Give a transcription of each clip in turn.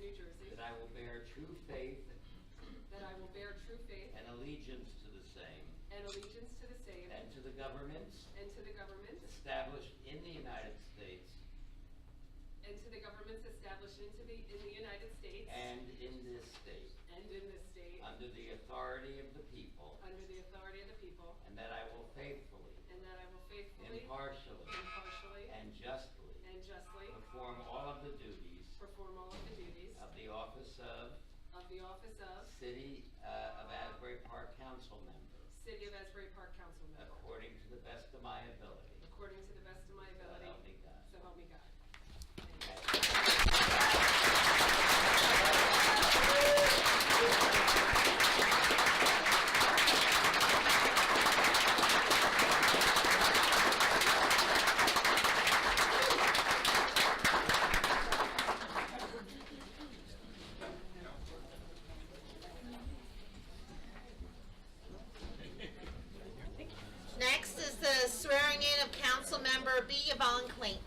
I will bear true faith that I will bear true faith and allegiance to the same and allegiance to the same and to the governments and to the governments established in the United States and to the governments established into the, in the United States and in this state, and in this state, under the authority of the people, under the authority of the people, and that I will faithfully, and that I will faithfully, impartially, impartially, and justly and justly perform all of the duties perform all of the duties of the office of of the office of City uh, of Asbury Park Council Member, City of Asbury Park Council Member, according to the best of my ability. according to the best of my So help me ability, God. so help me God. Next is the swearing in of council member B. Yvonne Clayton.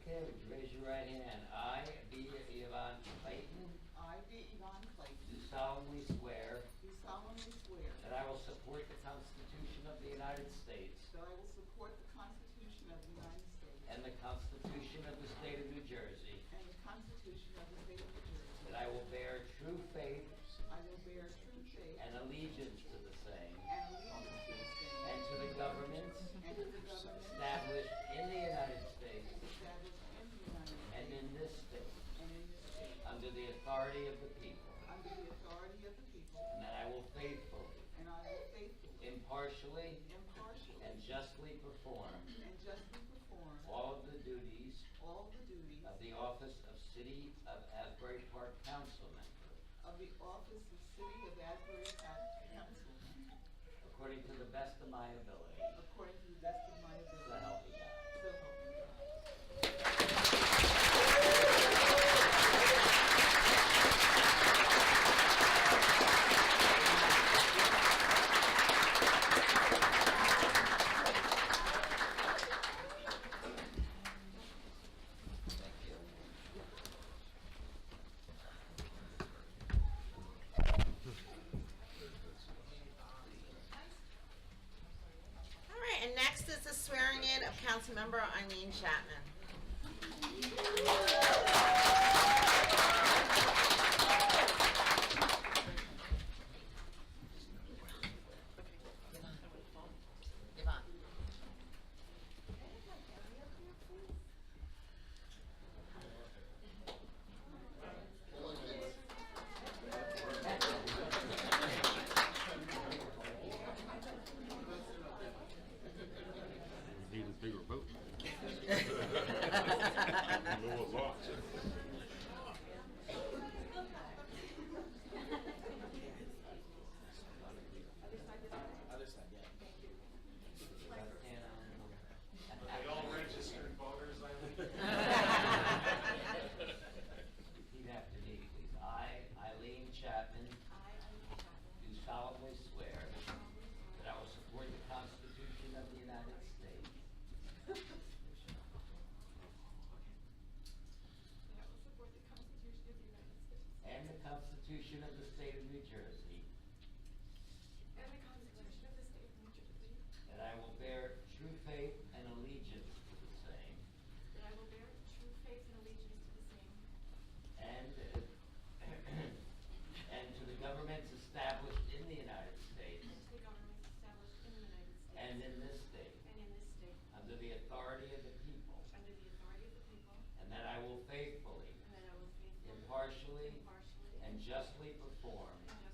Okay, would you raise your right hand? I, B. Yvonne Clayton, I, D. Yvonne Clayton, do solemnly swear do solemnly swear that I will support the Constitution of the United States that I will support the Constitution of the United States and the Constitution of the State of New Jersey, and the Constitution of the State of New Jersey. that I will bear true faith I will bear true faith and allegiance to the same and allegiance to the same and to the governments and to the government established in the United States established in the United States and in this state, and in this state under the authority of the people, under the authority of the people, and that I will faithfully, and I will faithfully, impartially, impartially, and justly perform and justly perform all of the duties all the duties of the office of City of Asbury Park Council Member, of the office of City of Asbury Park Council according to the best of my ability. according to the best of my So ability. help me God. So help me God. All right, and next is the swearing in of council member Eileen Chapman. Yvonne. Need a bigger boat. Lower lots. And, um, They all registered voters, I think. Repeat after me, please. I, Eileen Chapman, I, Amy Chapman, do solemnly swear that I will support the Constitution of the United States that I will support the Constitution of the United States and the Constitution of the State of New Jersey, and the Constitution of the State of New Jersey, that I will bear true faith and allegiance to the same, that I will bear true faith and allegiance to the same and, and to the governments established in the United States and to the governments established in the United States and in this state, and in this state, under the authority of the people, under the authority of the people, and that I will faithfully, and that I will faithfully, impartially, impartially, and justly perform and